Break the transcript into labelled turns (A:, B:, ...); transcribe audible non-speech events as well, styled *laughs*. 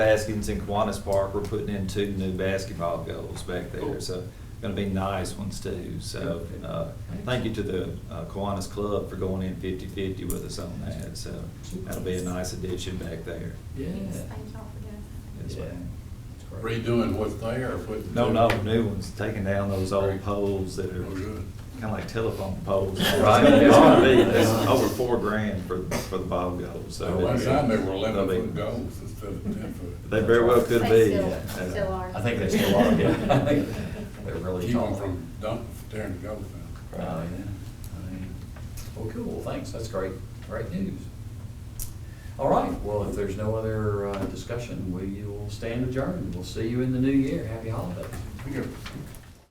A: Baskins in Kiwanis Park, we're putting in two new basketball goals back there, so gonna be nice ones too. So, uh, thank you to the uh, Kiwanis Club for going in 50-50 with us on that, so that'll be a nice addition back there.
B: Yeah.
C: Yes, thank y'all for doing
A: Yes,
B: Yeah.
A: ma'am.
D: Redoing what's there or putting?
A: No, no, new ones, taking down those old poles that are
D: Oh, good.
A: kinda like telephone
D: *laughs*
A: poles.
B: Right.
A: It's gonna be, it's over four grand for, for the ball goals, so.
D: Last time they were eleven
A: They'll be-
D: foot goals instead of ten foot.
A: They very well could
C: They
A: be.
C: still-
A: yeah.
C: still are.
B: I think they still are, yeah. I think They're really
D: Keep
B: tall.
D: them from dumping, tearing the goals down.
B: Uh, yeah. I mean, Well, cool, thanks, that's great, great news. All right, well, if there's no other uh, discussion, we will stand adjourned. We'll see you in the new year. Happy holidays.
D: We got